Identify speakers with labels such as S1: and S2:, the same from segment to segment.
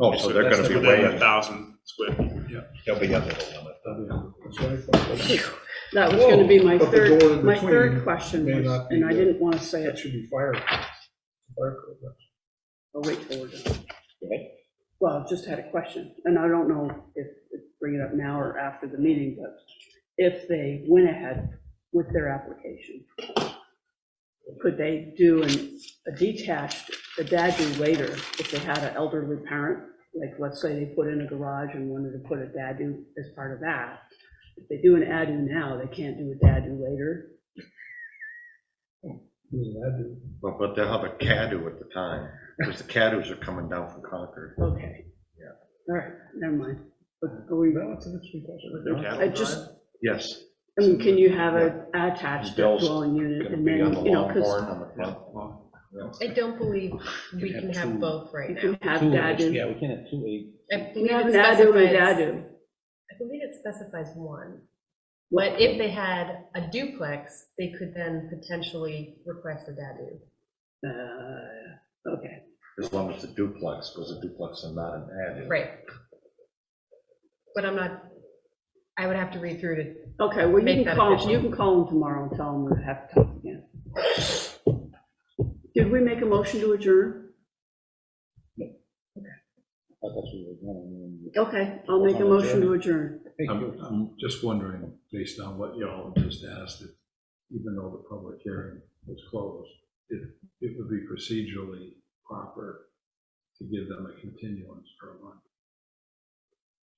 S1: Oh, so they're gonna
S2: That's
S1: be
S2: within
S1: way,
S2: A thousand square feet, yeah.
S1: they'll be under the limit.
S3: That was gonna be my
S4: But the door
S3: third,
S4: in
S3: my
S4: between
S3: third question
S4: may
S3: was,
S4: not be
S3: and I
S4: good.
S3: didn't wanna say
S4: That
S3: it,
S4: should be fire. fire code, that's-
S3: I'll wait till we're done.
S1: Okay.
S3: Well, I've just had a question, and I don't know if, if bring it up now or after the meeting, but if they went ahead with their application, could they do an, a detached, a dadu later, if they had an elderly parent? Like, let's say they put in a garage and wanted to put a dadu as part of that. If they do an adu now, they can't do a dadu later,
S4: Doesn't that do?
S1: But, but they'll have a CADU at the time, because the CADUs are coming down from Concord.
S3: Okay.
S1: Yeah.
S3: All right, never mind. But are we,
S4: No, it's an interesting
S1: They're
S4: question.
S1: CADU
S3: I just,
S1: Yes.
S3: I mean, can you have a attached
S1: Bill's
S3: dwelling unit
S1: Gonna
S3: and
S1: be on the
S3: then, you know,
S1: long
S3: because
S1: horn on the front.
S5: I don't believe we can have both right
S3: you
S5: now.
S3: can have
S6: Two acres,
S3: dadu.
S6: Yeah, we can't have two acres.
S5: I
S3: You
S5: believe
S3: have an adu
S5: it
S3: and a
S5: specifies,
S3: dadu.
S5: I believe it specifies one. But if they had a duplex, they could then potentially request a dadu.
S3: Uh, Okay,
S1: As long as the duplex, because a duplex is not an ADU.
S5: Right. But I'm not, I would have to read through to,
S3: okay, well,
S5: Make
S3: you can
S5: that
S3: call,
S5: official.
S3: you can call them tomorrow and tell them we have to talk again. Did we make a motion to adjourn?
S6: I thought we were going to-
S3: Okay, I'll make a motion to adjourn.
S6: Thank
S2: I'm,
S6: you.
S2: I'm just wondering, based on what y'all just asked, if even though the public hearing was closed, if it would be procedurally proper to give them a continuance for a month.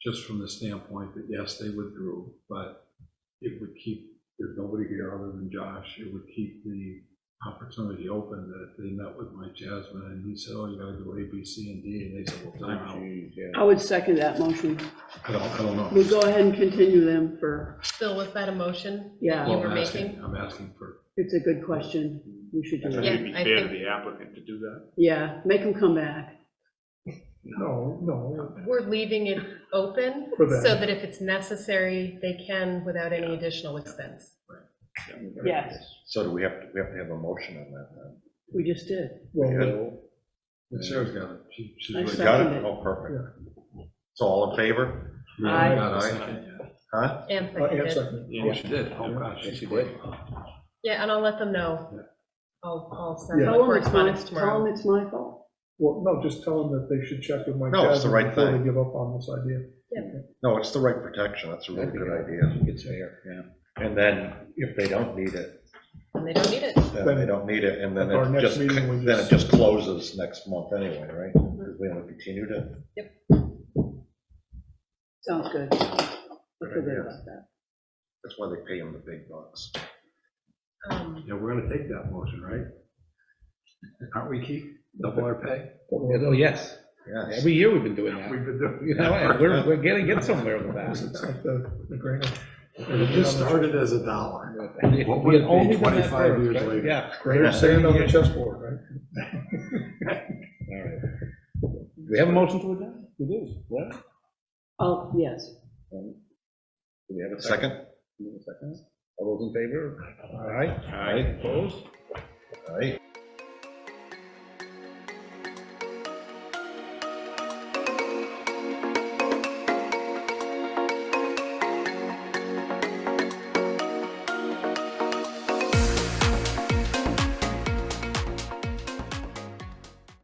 S2: Just from the standpoint that, yes, they withdrew, but it would keep, there's nobody here other than Josh, it would keep the opportunity open that if they met with Mike Jasmine and he said, oh, you gotta do A, B, C, and D, and they said, well, time out.
S6: Jeez, yeah.
S3: I would second that motion.
S2: I don't, I don't know.
S3: We'll go ahead and continue them for,
S5: Phil, was that a motion?
S3: Yeah.
S5: You
S2: Well,
S5: were
S2: I'm asking,
S5: making?
S2: I'm asking for
S3: it's a good question. We should do
S2: I think it'd
S3: it.
S2: be
S5: Yeah, I
S2: fair to
S5: think-
S2: the applicant to do that.
S3: Yeah, make them come back.
S4: No, no,
S5: We're leaving it open
S4: For them.
S5: so that if it's necessary, they can without any additional expense.
S3: Yes,
S1: So do we have, to? we have to have a motion on that then?
S3: we just did.
S4: well,
S2: And Sarah's got it. She- she's
S3: I
S2: really
S3: saw-
S2: got it.
S1: Got it?
S3: Seconded.
S1: Oh, perfect. So all in favor?
S2: Really
S3: Aye.
S2: got it.
S1: Huh?
S5: And
S2: Oh,
S4: no, I am
S5: seconded.
S4: second.
S2: Yeah, she did. Oh, gosh,
S6: Yes,
S2: she's
S6: she
S2: great.
S6: did.
S5: Yeah, and I'll let them know. I'll, I'll send
S4: Yeah.
S5: out
S3: Tell them it's my,
S5: correspondence
S3: tell
S5: tomorrow.
S3: them it's my fault.
S4: Well, no, just tell them that they should check with Mike
S1: No, it's the
S4: Jasmine
S1: right
S4: before they
S1: thing.
S4: give up on this idea.
S1: No, it's the right protection. That's a really
S6: That'd be
S1: good idea.
S6: It's fair, yeah.
S1: And then if they don't need it,
S5: And they don't need it.
S1: then they don't need it, and then
S4: At our
S1: it
S4: next
S1: just,
S4: meeting, we
S1: then it
S4: just-
S1: just closes next month anyway, right? Because we only continued it.
S3: Sounds good. I feel good about that.
S1: That's why they pay them the big bucks.
S5: Um,
S2: Yeah, we're gonna take that motion, right? Aren't we, Keith? Double our pay?
S6: Oh, yes.
S1: Yes.
S6: Every year we've been doing that.
S2: We've been doing.
S6: You know, and we're, we're getting, get somewhere with
S4: It's like the, the grant.
S2: It just started as a dollar.
S6: that.
S2: What would it
S6: We had
S2: be
S6: only done that
S2: 25
S6: first,
S2: years
S6: right?
S2: later?
S6: Yeah,
S4: Greater sand on the chessboard, right?
S6: all right. Do we have a motion to adjourn? We do, yeah.
S3: Oh, yes.
S6: Do we have a second?
S1: Second?
S6: Do we have a second? All those in favor? All right,
S1: All right.
S6: opposed?
S1: All right.